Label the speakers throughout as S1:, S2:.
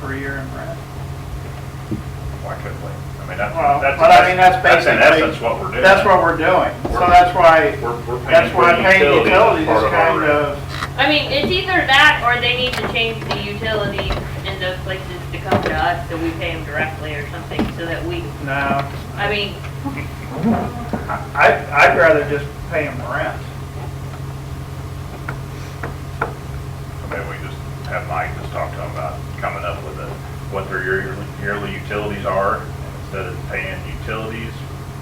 S1: per year in rent.
S2: Why couldn't we? I mean, that's,
S1: Well,
S2: that's.
S1: but I mean, that's
S2: in
S1: basically-
S2: essence what we're doing.
S1: That's what we're doing, so that's why,
S2: We're, we're paying
S1: that's
S2: for
S1: why paying
S2: utilities as
S1: utilities
S2: part
S1: is
S2: of our
S1: kind
S2: rent.
S1: of,
S3: I mean, it's either that or they need to change the utilities in those places to come to us so we pay them directly or something so that we,
S1: no.
S3: I mean,
S1: I, I'd rather just pay them rent.
S2: Maybe we just have Mike just talk to them about coming up with a, what their yearly, yearly utilities are. and Instead of paying utilities,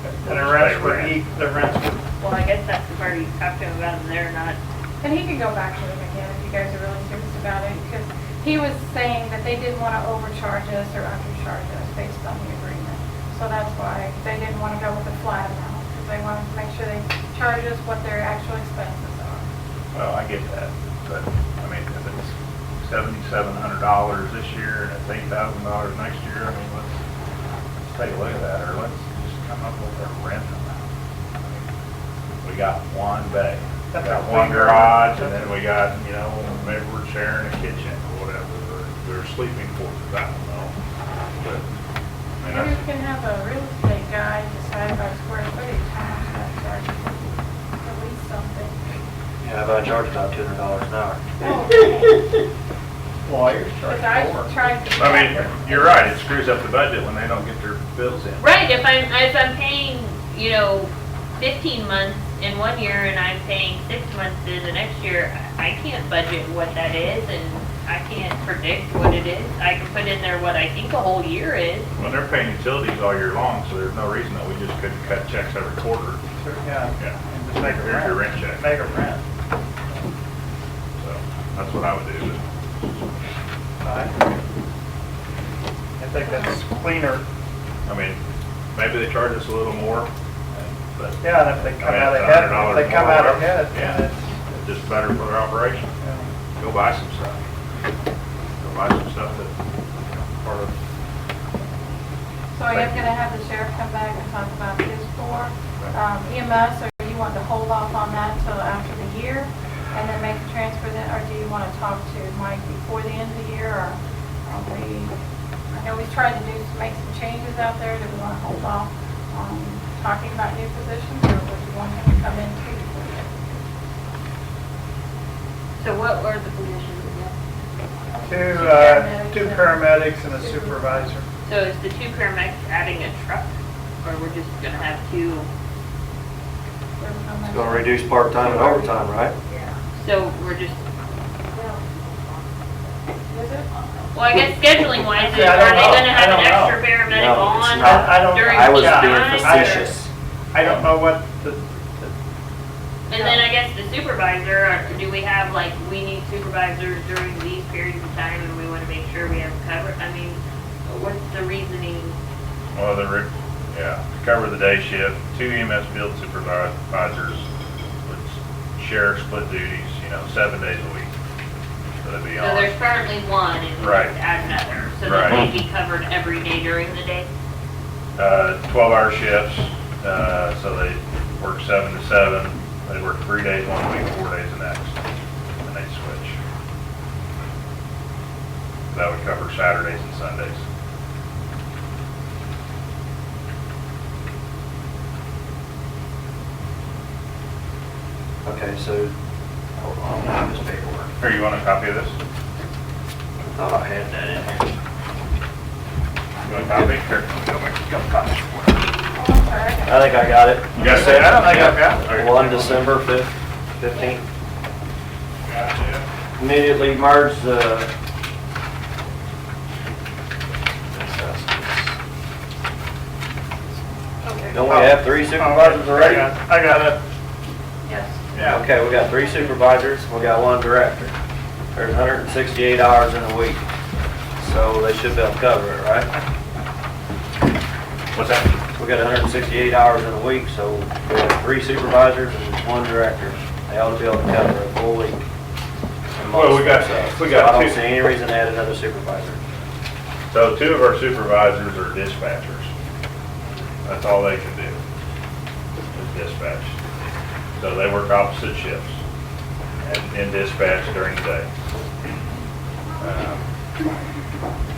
S1: And
S2: we'll
S1: the
S2: just
S1: rents
S2: pay
S1: would,
S2: rent.
S1: eat- the rents would,
S3: well, I guess that's the part you talked to him about and they're not.
S4: And he could go back to them again if you guys are really serious about it, because he was saying that they didn't want to overcharge us or undercharge us based on the agreement. So that's why they didn't want to go with the flat amount, because they wanted to make sure they charge us what their actual expenses are.
S2: Well, I get that, but, I mean, if it's seventy-seven hundred dollars this year and it's eight thousand dollars next year, I mean, let's, let's take a look at that, or let's just come up with a rent amount. I mean, We got one bay, we
S1: That's
S2: got
S1: a
S2: one
S1: big-
S2: garage, and then we got, you know, maybe we're sharing a kitchen or whatever, or they're sleeping quarters, I don't know, but, I mean,
S4: Maybe
S2: that's.
S4: we can have a real estate guy decide by square footage how much that charges, at least something.
S5: Yeah, but I charge about two hundred dollars an hour.
S1: lawyers charge
S4: Because I
S1: more.
S4: Oh, tried to.
S2: I mean, you're right, it screws up the budget when they don't get their bills in.
S3: Right, if I'm, if I'm paying, you know, fifteen months in one year and I'm paying six months in the next year, I I can't budget what that is and I can't predict what it is. I can put in there what I think a whole year is.
S2: Well, they're paying utilities all year long, so there's no reason that we just couldn't cut checks every quarter.
S1: So, Yeah,
S2: Yeah.
S1: and just make a
S2: Here's your
S1: rent,
S2: rent check.
S1: make a rent.
S2: So that's what I would do.
S1: I I think that's cleaner,
S2: I mean, maybe they charge us a little more, but
S1: yeah, and if they come
S2: I mean,
S1: out
S2: it's
S1: ahead,
S2: $100
S1: if they come
S2: more,
S1: out
S2: whatever.
S1: ahead, then
S2: Yeah,
S1: it's,
S2: it's just better for their operation.
S1: you know,
S2: Go buy some stuff. Go buy some stuff that, part of
S4: So I am gonna have the sheriff come back and talk about his four. Um, EMS, or you want to hold off on that till after the year and then make a transfer then, or do you want to talk to Mike before the end of the year or are we, I know we tried to do, make some changes out there. Do we want to hold off on talking about new positions or would you want him to come in too?
S3: So what were the positions again?
S1: Two, uh, two paramedics and a supervisor.
S3: So is the two paramedics adding a truck, or we're just gonna have two?
S5: It's gonna reduce part-time and overtime, right?
S3: So we're just,
S4: Is it? Oh,
S3: well, I guess scheduling wise, are they
S1: Yeah, I don't know.
S3: gonna have
S1: I
S3: an
S1: don't know.
S3: extra paramedic
S5: No, it's
S3: on
S5: not.
S1: I- I don't-
S3: during
S5: I was
S3: the
S5: being
S3: time?
S5: facetious.
S1: I don't know what the,
S3: And then I guess the supervisor, or do we have like, we need supervisors during these periods of time and we wanna make sure we have cover? I mean, what's the reasoning?
S2: Well, the, re- yeah, to cover the day shift, two EMS field supervisors would share split duties, you know, seven days a week. So it'd be
S3: So there's
S2: on,
S3: currently one and we
S2: Right.
S3: just add another, so that
S2: Right.
S3: we be covered every day during the day?
S2: uh, twelve-hour shifts, uh, so they work seven to seven. They work three days one week, four days the next, and they switch. That would cover Saturdays and Sundays.
S5: Okay, so, hold on, I have this paperwork.
S2: Here, you want a copy of this?
S5: I thought I had that in here.
S2: You want a copy? Here, go make, go copy.
S4: Oh, I'm sorry, I got
S5: I think I got it.
S2: You got it? I don't think I've got it.
S5: Yeah. One December fifth, fifteenth.
S2: Gotcha.
S5: Immediately merge the. Don't we have three supervisors already?
S1: I got it.
S4: Yes.
S2: Yeah.
S5: Okay, we got three supervisors, we got one director. There's 168 hours in a week, so they should be able to cover it, right?
S2: What's that?
S5: We got 168 hours in a week, so we have three supervisors and one director. They ought to be able to cover a full week. And
S2: Well, we got-
S5: most of it.
S2: we got
S5: So I
S2: two-
S5: don't see any reason to add another supervisor.
S2: So two of our supervisors are dispatchers. That's all they can do, is dispatch. So they work opposite shifts and, and dispatch during the day. Um,